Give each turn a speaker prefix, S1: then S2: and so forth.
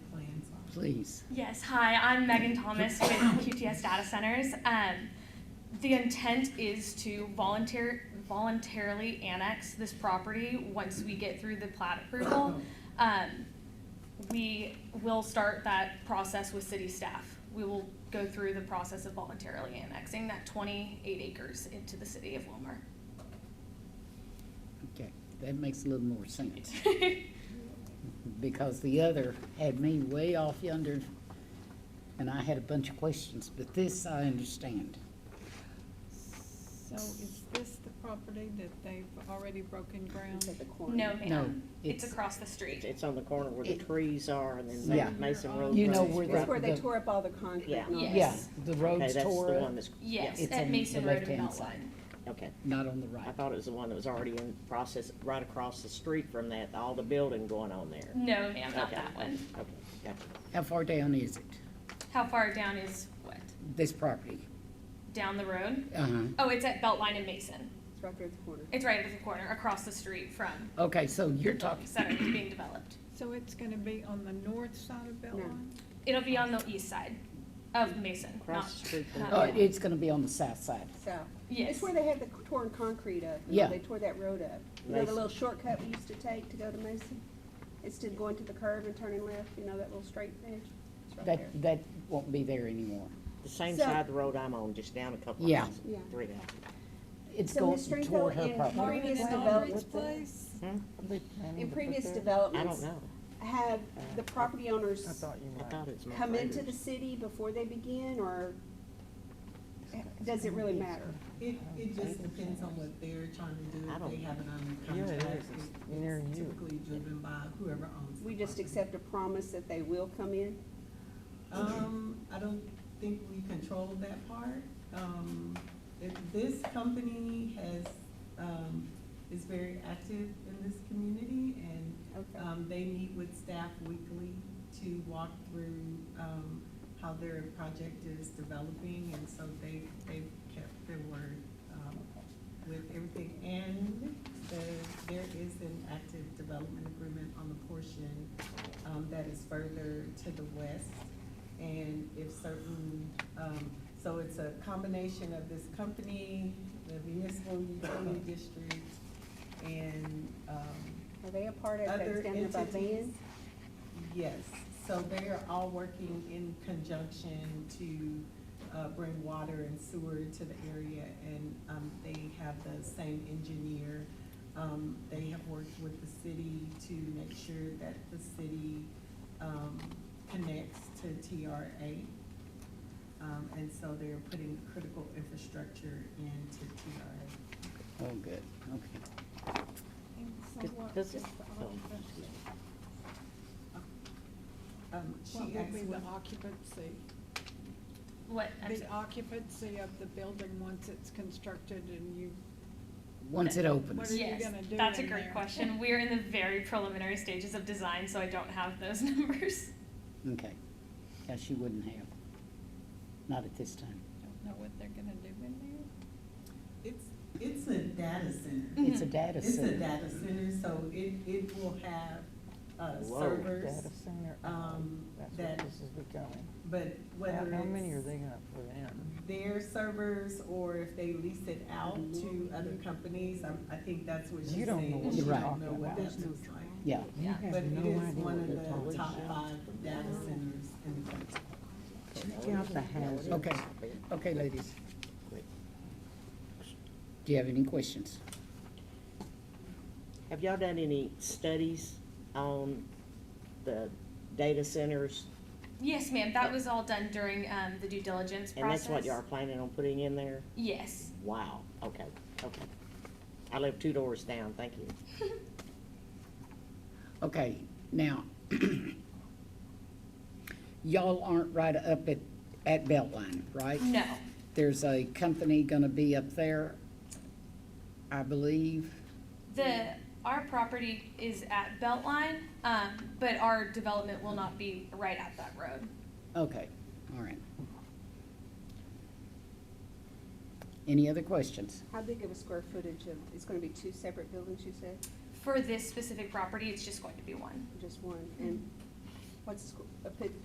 S1: please.
S2: Yes, hi, I'm Megan Thomas with QTS Data Centers. Um, the intent is to volunteer, voluntarily annex this property once we get through the plat approval. Um, we will start that process with city staff. We will go through the process of voluntarily annexing that twenty-eight acres into the city of Wilmer.
S1: Okay, that makes a little more sense. Because the other had me way off yonder, and I had a bunch of questions, but this I understand.
S3: So is this the property that they've already broken ground?
S4: At the corner.
S2: No,
S1: No,
S2: ma'am, it's
S1: it's-
S2: across the street.
S4: It's on the corner where the
S1: It-
S4: trees are and then
S1: Yeah.
S4: Ma- Mason Road.
S1: You know
S4: runs
S1: where the-
S4: right-
S3: That's where they
S1: the-
S3: tore up all the concrete.
S4: Yeah.
S3: and all that.
S1: Yeah,
S2: Yes.
S1: the
S4: Okay,
S1: roads
S4: that's the
S1: tore
S4: one
S1: up,
S4: that's,
S2: Yes,
S1: it's
S2: at
S1: on the
S2: Mason Road and
S1: left-hand
S2: Beltline.
S1: side.
S4: okay.
S1: not on the right.
S4: I thought it was the one that was already in process, right across the street from that, all the building going on there.
S2: No, ma'am, not
S4: Okay.
S2: that one.
S4: Okay, gotcha.
S1: How far down is it,
S2: How far down is what?
S1: this property?
S2: Down the road?
S1: Uh-huh.
S2: Oh, it's at Beltline and Mason.
S3: It's right there at the corner.
S2: It's right at the corner, across the street from
S1: Okay, so you're
S2: Beltline
S1: talking,
S2: Center that's being developed.
S3: So it's gonna be on the north side of Beltline?
S2: It'll be on the east side of Mason, not.
S4: Across the street from-
S2: not-
S1: uh, it's gonna be on the south side.
S3: South.
S2: Yes,
S3: It's where they had the torn concrete up. you know,
S1: Yeah.
S3: They tore that road up. You know the
S4: Mason.
S3: little shortcut we used to take to go to Mason? Instead of going to the curve and turning left, you know, that little straight edge? It's right there.
S1: That, that won't be there anymore.
S4: The same
S3: So-
S4: side of the road I'm on, just down a couple
S1: Yeah.
S4: houses,
S3: Yeah.
S4: three houses.
S1: It's
S3: So
S1: going
S3: Ms. Stringfellow,
S1: toward her
S3: in
S1: property.
S3: previous
S5: Margaret
S3: developments,
S5: Margaret's place?
S3: in previous
S4: I don't
S3: developments,
S4: know. Uh,
S3: have the property owners
S4: I thought it was. my
S3: come into the
S4: neighbors.
S3: city before they begin, or does it really matter?
S5: It, it just depends on what they're trying to do,
S4: I
S5: if
S4: don't-
S5: they have it
S4: Yeah,
S5: under
S4: it
S5: contract,
S4: is.
S5: it's
S4: It's near you.
S5: it's typically driven by whoever owns the
S3: We just
S5: property.
S3: accept a promise that they will come in?
S5: Um, I don't think we control that part. Um, if this company has, um, is very active in this community and,
S3: Okay.
S5: um, they meet with staff weekly to walk through, um, how their project is developing and so they, they've kept their word, um, with everything. And the, there is an active development agreement on the portion, um, that is further to the west. And if certain, um, so it's a combination of this company, the municipal utility district, and, um,
S3: Are they a part of,
S5: Other
S3: that's down there by
S5: entities?
S3: Van?
S5: yes. So they are all working in conjunction to, uh, bring water and sewer to the area, and, um, they have the same engineer. Um, they have worked with the city to make sure that the city, um, connects to TRA. Um, and so they're putting critical infrastructure into TRA.
S1: Oh, good, okay.
S4: Does- Does this, oh, excuse me.
S5: Um,
S6: What
S5: she
S6: would
S5: asked
S6: be the
S5: what,
S6: occupancy?
S2: what, I'm
S6: The
S2: sorry.
S6: occupancy of the building once it's constructed and you,
S1: Once it
S6: What
S1: opens,
S6: are you
S2: yes,
S6: gonna do
S2: that's a
S6: in
S2: great
S6: there?
S2: question. We're in the very preliminary stages of design, so I don't have those numbers.
S1: okay. Yeah, she wouldn't have. Not at this time.
S6: don't know what they're gonna do in there?
S5: it's, it's a data center.
S1: It's a data
S5: It's a
S1: center.
S5: data center, so it, it will have, uh,
S7: Whoa,
S5: servers.
S7: Data center,
S5: um,
S7: that's
S5: that-
S7: what this is becoming.
S5: But whether
S7: How,
S5: it's.
S7: how many are they gonna put in?
S5: Their servers, or if they lease it out to other companies, I, I think that's what she's saying.
S7: You don't know what
S5: She
S1: you're
S5: don't
S1: talking
S5: know what
S7: about.
S5: that looks like.
S1: Yeah,
S2: Yeah.
S7: You
S5: But
S7: have
S5: it
S7: no
S5: is one
S7: idea what
S5: of
S7: they're
S5: the
S7: talking
S5: top
S7: about.
S5: five data centers in the country.
S7: Check out the houses.
S1: okay, okay, ladies. Do you have any questions?
S4: Have y'all done any studies on the data centers?
S2: Yes, ma'am, that was all done during, um, the due diligence
S4: And
S2: process.
S4: that's what y'all are planning on putting in there?
S2: Yes.
S4: Wow, okay, okay. I live two doors down, thank you.
S1: Okay, now, y'all aren't right up at, at Beltline, right?
S2: No,
S1: There's a company gonna be up there, I believe.
S2: the, our property is at Beltline, um, but our development will not be right at that road.
S1: Okay, all right. Any other questions?
S3: How big of a square footage of, it's gonna be two separate buildings, you said,
S2: For this specific property, it's just going to be one.
S3: or just one? And what's, the squ- a pit-